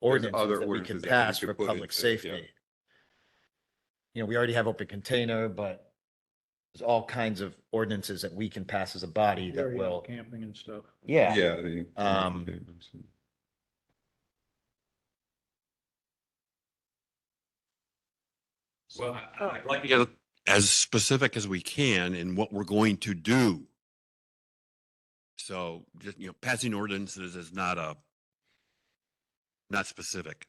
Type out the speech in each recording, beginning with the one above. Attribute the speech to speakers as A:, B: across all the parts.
A: ordinances
B: other
A: that we can
B: ordinances that we
A: pass
B: could
A: for
B: put
A: public
B: into it, yeah.
A: safety. You know, we already have open container, but there's all kinds of ordinances that we can pass as a body that
C: Area
A: will,
C: Camping and stuff.
A: yeah.
B: Yeah. the-
A: Um,
D: Well, I- I'd like to get as specific as we can in what we're going to do. So just, you know, passing ordinances is not a, not specific.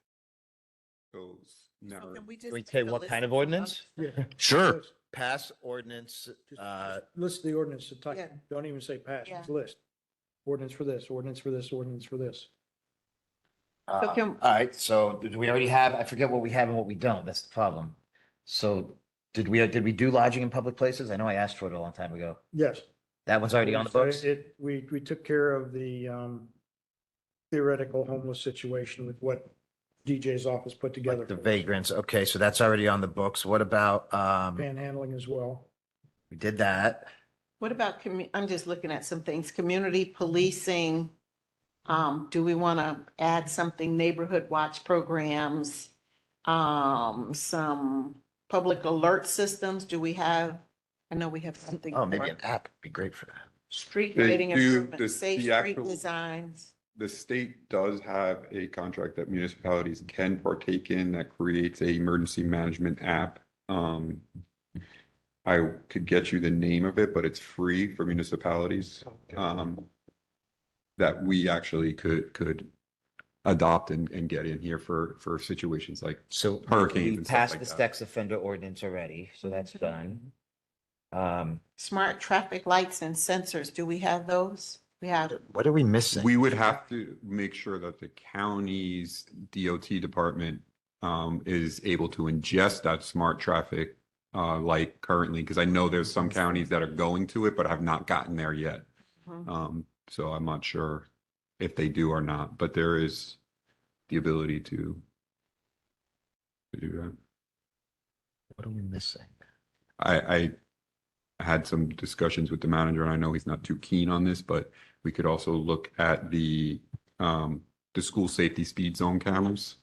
B: Those
E: So
B: never-
E: Oh, can we just
A: We
E: take
A: say
E: a
A: what
E: list
A: kind of
E: of
A: ordinance?
C: Yeah.
D: Sure.
C: Just-
A: Pass ordinance,
C: just
A: uh,
C: List the ordinance to type.
E: Yeah.
C: Don't even say pass,
E: Yeah.
C: just list. Ordinance for this, ordinance for this, ordinance for this.
A: uh, all
E: can-
A: right, so did we already have, I forget what we have and what we don't, that's the problem. So did we, did we do lodging in public places? I know I asked for it a long time ago.
C: Yes.
A: That one's already on the books?
C: It, we, we took care of the um, theoretical homeless situation with what DJ's office put together.
A: Like the vagrants, okay, so that's already on the books. What about, um,
C: Panhandling as well.
A: we did that.
E: What about, commu- I'm just looking at some things, community policing. Um, do we want to add something, neighborhood watch programs? Um, some public alert systems, do we have? I know we have something.
A: Oh, maybe
E: for
A: an app would be great for that.
E: Street
B: They
E: lighting
B: do
E: improvement,
B: this-
E: safe
B: the
E: street
B: actual-
E: designs.
B: The state does have a contract that municipalities can partake in that creates a emergency management app. Um, I could get you the name of it, but it's free for municipalities. Um, that we actually could, could adopt and, and get in here for, for situations like
A: So
B: Hurricanes
A: we
B: and stuff
A: passed
B: like
A: the
B: that.
A: sex offender ordinance already, so that's done. Um,
E: Smart traffic lights and sensors, do we have those? We have,
A: what are we missing?
B: We would have to make sure that the county's DOT department um, is able to ingest that smart traffic uh, like currently, because I know there's some counties that are going to it, but have not gotten there yet.
E: Mhm.
B: Um, so I'm not sure if they do or not, but there is the ability to to do that.
A: What are we missing?
B: I, I had some discussions with the manager and I know he's not too keen on this, but we could also look at the, um, the school safety speed zone cameras.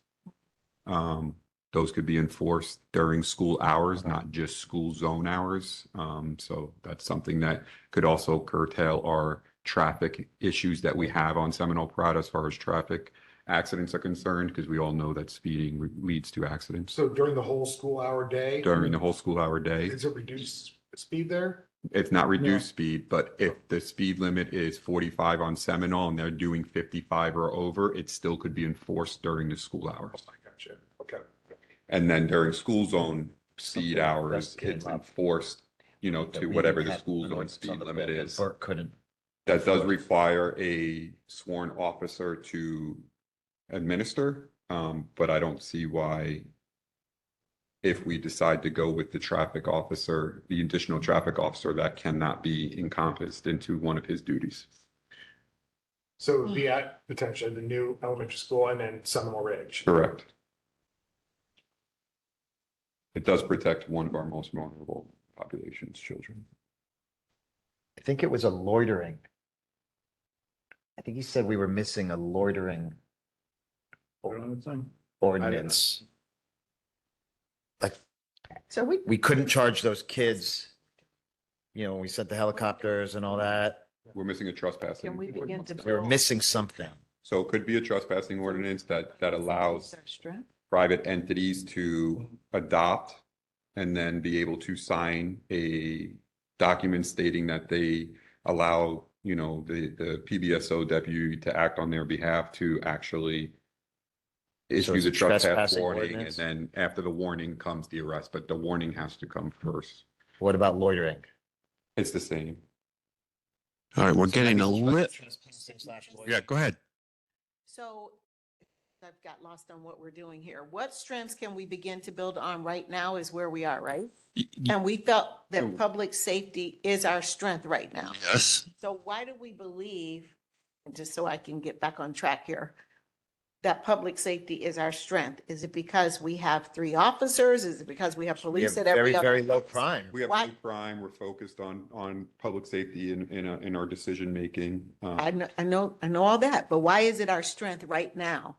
B: Um, those could be enforced during school hours, not just school zone hours. Um, so that's something that could also curtail our traffic issues that we have on Seminole Pride as far as traffic accidents are concerned, because we all know that speeding leads to accidents
F: So during the whole school hour day?
B: during the whole school hour day.
F: Is it reduced speed there?
B: it's not reduced speed, but if the speed limit is forty-five on Seminole and they're doing fifty-five or over, it still could be enforced during the school hours.
F: Oh, I gotcha. Okay.
B: And then during school zone
A: Something
B: speed
A: like
B: hours,
A: that came
B: it's
A: up.
B: enforced, you know,
A: That
B: to
A: we
B: whatever the
A: had
B: school
A: something
B: zone
A: that
B: speed limit is.
A: Burke couldn't.
B: That does require a sworn officer to administer, um, but I don't see why if we decide to go with the traffic officer, the additional traffic officer, that cannot be encompassed into one of his duties.
F: So it would
E: Hmm.
F: be at potentially the new elementary school and then Seminole Ridge.
B: Correct. It does protect one of our most vulnerable populations, children.
A: I think it was a loitering. I think he said we were missing a loitering
C: Put it on the thing.
A: ordinance.
E: so we,
A: We couldn't charge those kids, you know, when we sent the helicopters and all that.
B: We're missing a trespassing.
E: can we begin
B: ordinance.
E: to?
A: We were
E: build-
A: missing something.
B: So it could be a trespassing ordinance that, that allows
E: Our strength.
B: private entities to adopt and then be able to sign a document stating that they allow, you know, the, the PBSO deputy to act on their behalf to actually issue
A: it's a
B: the trespass
A: trespassing
B: warning, and
A: ordinance?
B: then after the warning comes the arrest, but the warning has to come first.
A: What about loitering?
B: It's the same.
D: All right, we're getting a
A: little
D: lit. Yeah, go ahead.
E: So I've got lost on what we're doing here. What strengths can we begin to build on right now is where we are, right?
D: Y- y-
E: And we felt
B: Mm.
E: that public safety is our strength right now.
D: Yes,
E: So why do we believe, and just so I can get back on track here, that public safety is our strength? Is it because we have three officers? Is it because we have
A: We have
E: police at
A: very,
E: every other?
A: very low crime.
B: We have
E: Why-
B: new crime, we're focused on, on public safety in, in, our- in our decision-making. uh,
E: I know, I know, I know all that, but why is it our strength right now?